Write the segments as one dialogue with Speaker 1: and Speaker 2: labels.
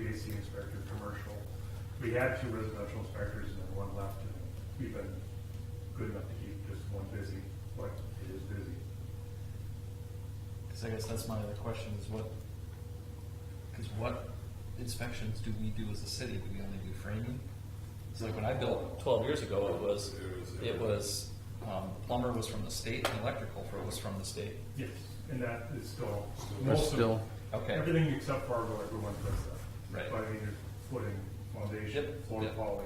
Speaker 1: inspector, commercial. We had two residential inspectors and then one left, and we've been good enough to keep just one busy, but it is busy.
Speaker 2: Because I guess that's my other question is what, because what inspections do we do as a city? Do we only do framing? It's like when I built twelve years ago, it was, it was, um, plumber was from the state and electrical for- was from the state.
Speaker 1: Yes, and that is still,
Speaker 3: Are
Speaker 1: most of,
Speaker 3: still,
Speaker 2: Okay,
Speaker 1: everything except Fargo, everyone does that.
Speaker 2: Right.
Speaker 1: But I mean, there's footing, foundation,
Speaker 2: Yep,
Speaker 1: floor
Speaker 2: yep.
Speaker 1: poly,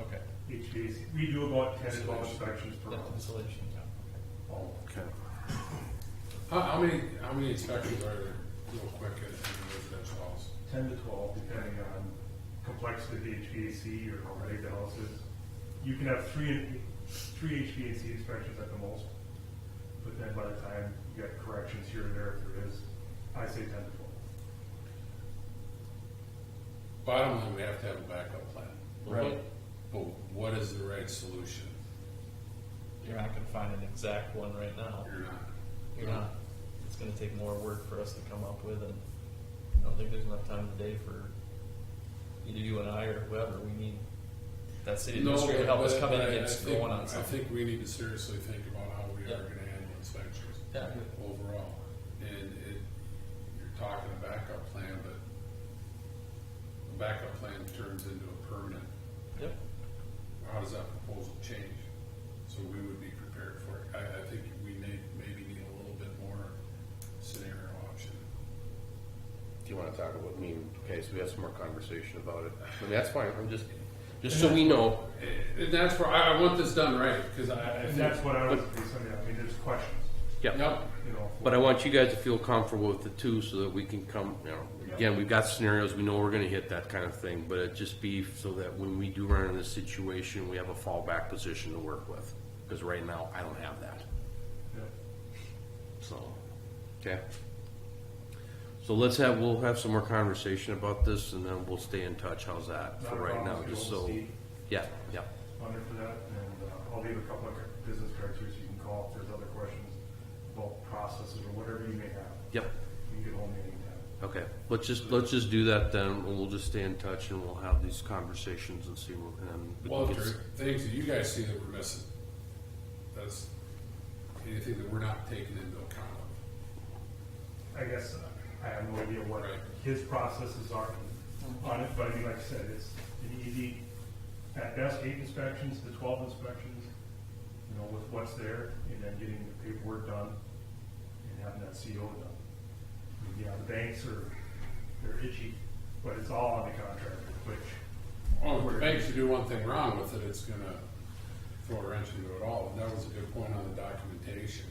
Speaker 2: okay.
Speaker 1: HVAC, we do about ten to twelve inspections per
Speaker 2: Yeah,
Speaker 1: month.
Speaker 2: Insulation, yeah.
Speaker 1: All of them.
Speaker 3: how, how many, how many inspections are there, real quick, at the residential house?
Speaker 1: ten to twelve, depending on complexity of the HVAC or how ready the house is. You can have three, three HVAC inspections at the most, but then by the time you get corrections here and there, if there is, I say ten to twelve.
Speaker 3: Bottom line, we have to have a backup plan.
Speaker 2: Right.
Speaker 3: But what is the right solution?
Speaker 2: You're not gonna find an exact one right now.
Speaker 3: You're not.
Speaker 2: You're not. It's gonna take more work for us to come up with and I don't think there's enough time today for either you and I or whoever. We need that city
Speaker 3: No,
Speaker 2: administrator to help us
Speaker 3: but-
Speaker 2: come in and
Speaker 3: but I- I
Speaker 2: get
Speaker 3: think-
Speaker 2: going on
Speaker 3: I
Speaker 2: something.
Speaker 3: think we need to seriously think about how we
Speaker 2: Yeah.
Speaker 3: are gonna handle inspections.
Speaker 2: Yeah.
Speaker 3: Overall, and it, you're talking a backup plan, but a backup plan turns into a permanent.
Speaker 2: Yep,
Speaker 3: How does that proposal change? So we would be prepared for it. I, I think we may, maybe need a little bit more scenario option.
Speaker 4: Do you wanna talk about, I mean, okay, so we have some more conversation about it. I mean, that's fine, I'm just, just so we know.
Speaker 3: And- And that's where, I, I want this done right, because I, I
Speaker 1: And
Speaker 3: think,
Speaker 1: that's what I was basing it on, I mean, there's questions,
Speaker 3: yep,
Speaker 1: you know.
Speaker 4: But I want you guys to feel comfortable with the two so that we can come, you know, again, we've got scenarios, we know we're gonna hit that kind of thing, but it just be so that when we do run into this situation, we have a fallback position to work with. Cause right now, I don't have that,
Speaker 1: yeah.
Speaker 4: so, okay? So let's have, we'll have some more conversation about this and then we'll stay in touch, how's that for
Speaker 1: Not a
Speaker 4: right now,
Speaker 1: problem,
Speaker 4: just
Speaker 1: you know,
Speaker 4: so,
Speaker 1: Steve,
Speaker 4: yeah, yeah.
Speaker 1: Under for that, and uh, I'll leave a couple of business cards here so you can call if there's other questions about processes or whatever you may have.
Speaker 4: Yep.
Speaker 1: You can get hold of me anytime.
Speaker 4: Okay, let's just, let's just do that then, and we'll just stay in touch and we'll have these conversations and see what, and. we can
Speaker 3: Well,
Speaker 4: get-
Speaker 3: if there are things that you guys see that we're missing, that's anything that we're not taking into account of.
Speaker 1: I guess I have no idea what
Speaker 3: Right.
Speaker 1: his processes are on it, but I mean, like I said, it's an easy, at best, eight inspections to twelve inspections, you know, with what's there, and then getting the paperwork done and having that CO done. And, Yeah, the banks are, they're itchy, but it's all on the contractor, which,
Speaker 3: Oh, if the banks do one thing wrong with it, it's gonna throw a wrench into it all, and that was a good point on the documentation.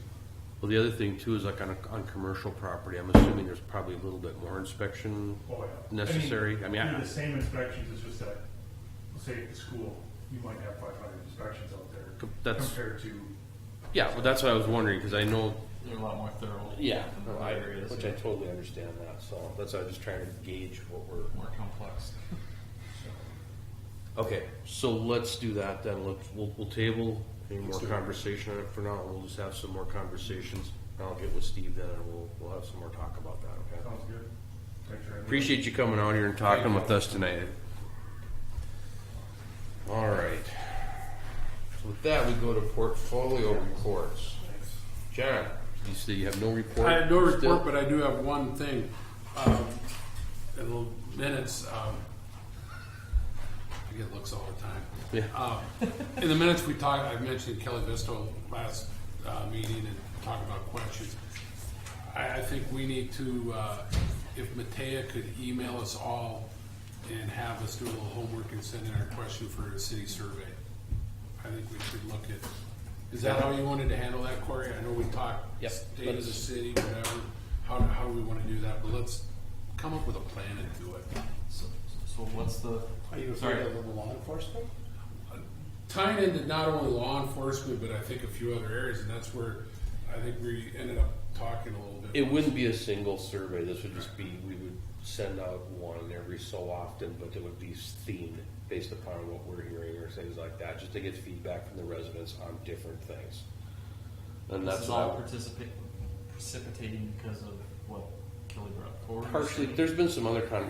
Speaker 4: Well, the other thing too is like on a, on commercial property, I'm assuming there's probably a little bit more inspection.
Speaker 1: oh, yeah. I mean,
Speaker 4: Necessary, I mean, I-
Speaker 1: They're the same inspections, it's just that, say at the school, you might have five hundred inspections out there
Speaker 4: Com- that's-
Speaker 1: compared to
Speaker 4: Yeah, well, that's what I was wondering, cause I know.
Speaker 2: they're a lot more thorough. than other areas,
Speaker 4: Which I
Speaker 2: yeah.
Speaker 4: totally understand that, so that's why I was just trying to gauge what we're.
Speaker 2: More complex.
Speaker 4: Okay, so let's do that then. Let's, we'll, we'll table any more conversation on it for now. We'll just have some more conversations. I'll get with Steve then and we'll, we'll have some more talk about that, okay?
Speaker 1: Sounds good. Thanks, Randy.
Speaker 4: Appreciate you coming out here and talking with us tonight. All right. So with that, we go to portfolio reports. John, you say you have no report?
Speaker 3: I have no
Speaker 4: still?
Speaker 3: report, but I do have one thing. Um, in little minutes, um, I get looks all the time.
Speaker 4: Yeah.
Speaker 3: Um, in the minutes we talked, I mentioned Kelly Visto last uh, meeting and talked about questions. I, I think we need to, uh, if Matea could email us all and have us do a little homework and send in our question for a city survey. I think we should look at, is that how you wanted to handle that, Corey? I know we talked
Speaker 4: Yep,
Speaker 3: state of the
Speaker 4: let's-
Speaker 3: city, whatever, how, how we wanna do that, but let's come up with a plan and do it.
Speaker 2: So, so what's the,
Speaker 5: Are you
Speaker 2: Sorry.
Speaker 5: afraid of the law enforcement?
Speaker 3: Uh, tying into not only law enforcement, but I think a few other areas, and that's where I think we ended up talking a little bit.
Speaker 4: It wouldn't be a single survey, this would just be, we would send out one every so often, but it would be themed based upon what we're hearing or things like that, just to get feedback from the residents on different things. And
Speaker 2: this
Speaker 4: that's
Speaker 2: is all
Speaker 4: all,
Speaker 2: participating, precipitating because of what Kelly brought forward?
Speaker 4: partially, there's been some other